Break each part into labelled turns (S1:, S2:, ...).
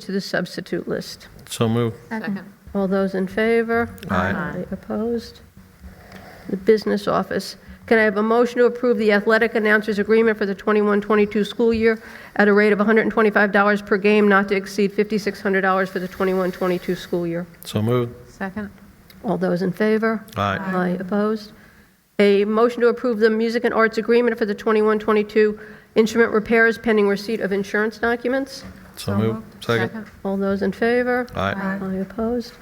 S1: to the substitute list.
S2: So moved.
S3: Second.
S1: All those in favor?
S2: Aye.
S1: Any Opposed? The business office. Can I have a motion to approve the athletic announcers agreement for the 21-22 school year at a rate of $125 per game, not to exceed $5,600 for the 21-22 school year?
S2: So moved.
S3: Second.
S1: All those in favor?
S2: Aye.
S1: Aye, opposed? A motion to approve the music and arts agreement for the 21-22 instrument repairs pending receipt of insurance documents?
S2: So moved. Second.
S1: All those in favor?
S2: Aye.
S1: I opposed.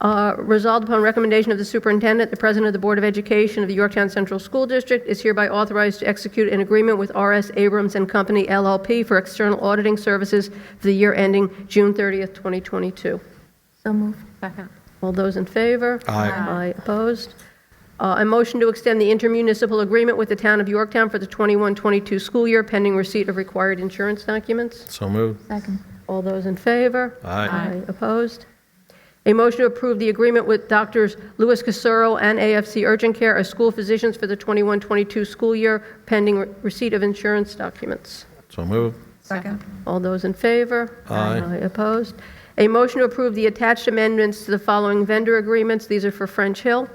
S1: Uh, Resolved upon recommendation of the superintendent, the president of the Board of Education of the Yorktown Central School District is hereby authorized to execute an agreement with R.S. Abrams and Company LLP for external auditing services for the year ending June 30th, 2022.
S3: So moved. Second.
S1: All those in favor?
S2: Aye.
S1: Aye, opposed. Uh, A motion to extend the intermunicipal agreement with the town of Yorktown for the 21-22 school year pending receipt of required insurance documents.
S2: So moved.
S3: Second.
S1: All those in favor?
S2: Aye.
S1: Aye. Opposed? A motion to approve the agreement with Doctors Louis Casero and AFC Urgent Care as school physicians for the 21-22 school year pending re- receipt of insurance documents.
S2: So moved.
S3: Second.
S1: All those in favor?
S2: Aye.
S1: Opposed? A motion to approve the attached amendments to the following vendor agreements. These are for French Hill.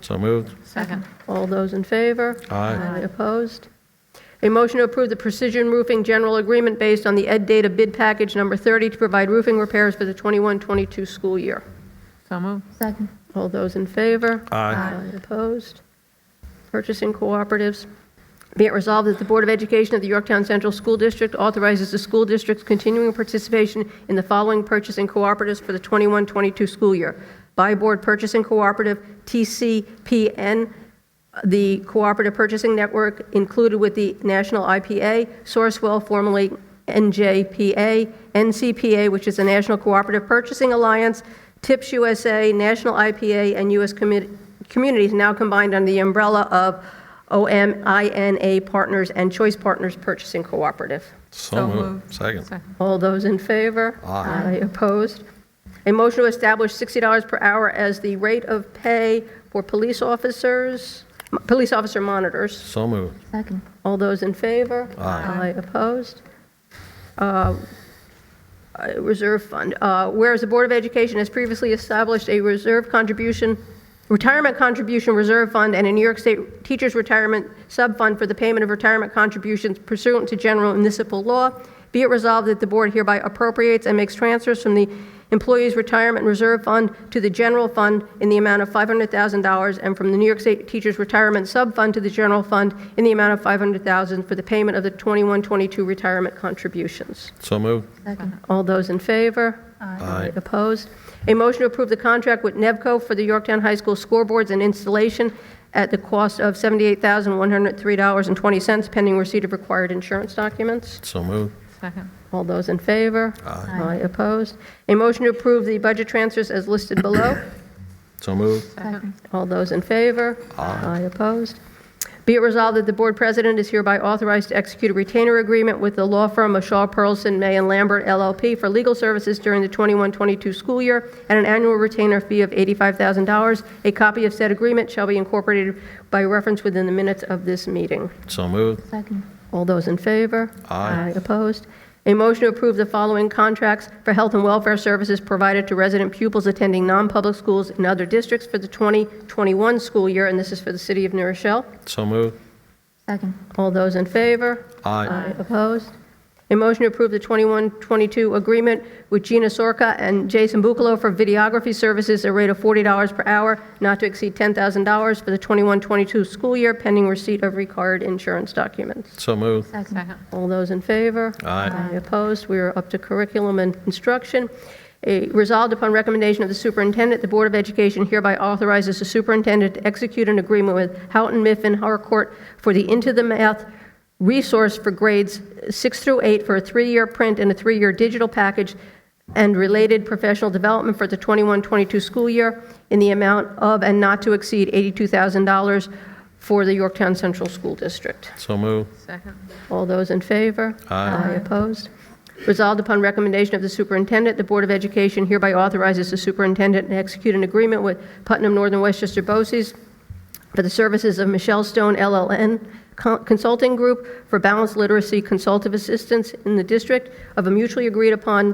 S2: So moved.
S3: Second.
S1: All those in favor?
S2: Aye.
S1: Opposed? A motion to approve the Precision Roofing General Agreement based on the Ed Data Bid Package Number 30 to provide roofing repairs for the 21-22 school year.
S3: So moved. Second.
S1: All those in favor?
S2: Aye.
S1: Opposed? Purchasing cooperatives. Be it resolved that the Board of Education of the Yorktown Central School District authorizes the school district's continuing participation in the following purchasing cooperatives for the 21-22 school year. Buy Board Purchasing Cooperative, TCPN, the Cooperative Purchasing Network included with the National IPA, Sourcewell formerly NJPA, NCPA, which is the National Cooperative Purchasing Alliance, TIPS USA, National IPA, and U.S. Commu- Communities now combined under the umbrella of OMINA Partners and Choice Partners Purchasing Cooperative.
S2: So moved. Second.
S1: All those in favor? Aye. Opposed? A motion to establish $60 per hour as the rate of pay for police officers, police officer monitors.
S2: So moved.
S3: Second.
S1: All those in favor?
S2: Aye.
S1: Opposed? Uh, uh, Reserve Fund. Uh, Whereas the Board of Education has previously established a reserve contribution, retirement contribution reserve fund and a New York State Teachers Retirement Subfund for the payment of retirement contributions pursuant to general municipal law, be it resolved that the Board hereby appropriates and makes transfers from the Employees Retirement Reserve Fund to the General Fund in the amount of $500,000 and from the New York State Teachers Retirement Subfund to the General Fund in the amount of $500,000 for the payment of the 21-22 retirement contributions.
S2: So moved.
S3: Second.
S1: All those in favor?
S2: Aye.
S1: Opposed? A motion to approve the contract with Nevco for the Yorktown High School scoreboards and installation at the cost of $78,103.20 pending receipt of required insurance documents.
S2: So moved.
S3: Second.
S1: All those in favor?
S2: Aye.
S1: Opposed? A motion to approve the budget transfers as listed below.
S2: So moved.
S3: Second.
S1: All those in favor? Aye. Opposed? Be it resolved that the Board President is hereby authorized to execute a retainer agreement with the law firm of Shaw Pearlson, May and Lambert LLP for legal services during the 21-22 school year at an annual retainer fee of $85,000. A copy of said agreement shall be incorporated by reference within the minutes of this meeting.
S2: So moved.
S3: Second.
S1: All those in favor?
S2: Aye.
S1: Opposed? A motion to approve the following contracts for health and welfare services provided to resident pupils attending non-public schools in other districts for the 2021 school year, and this is for the city of New Rochelle.
S2: So moved.
S3: Second.
S1: All those in favor?
S2: Aye.
S1: Opposed? A motion to approve the 21-22 agreement with Gina Sorka and Jason Bucalo for videography services at a rate of $40 per hour, not to exceed $10,000 for the 21-22 school year, pending receipt of required insurance documents.
S2: So moved.
S3: Second.
S1: All those in favor?
S2: Aye.
S1: Opposed? We are up to curriculum and instruction. A- Resolved upon recommendation of the superintendent, the Board of Education hereby authorizes the superintendent to execute an agreement with Houghton Mifflin Harcourt for the Into the Math resource for grades 6 through 8 for a three-year print and a three-year digital package and related professional development for the 21-22 school year in the amount of and not to exceed $82,000 for the Yorktown Central School District.
S2: So moved.
S3: Second.
S1: All those in favor?
S2: Aye.
S1: Opposed? Resolved upon recommendation of the superintendent, the Board of Education hereby authorizes the superintendent to execute an agreement with Putnam Northern Westchester BOCES for the services of Michelle Stone LLN Co- Consulting Group for balanced literacy consultative assistance in the district of a mutually agreed-upon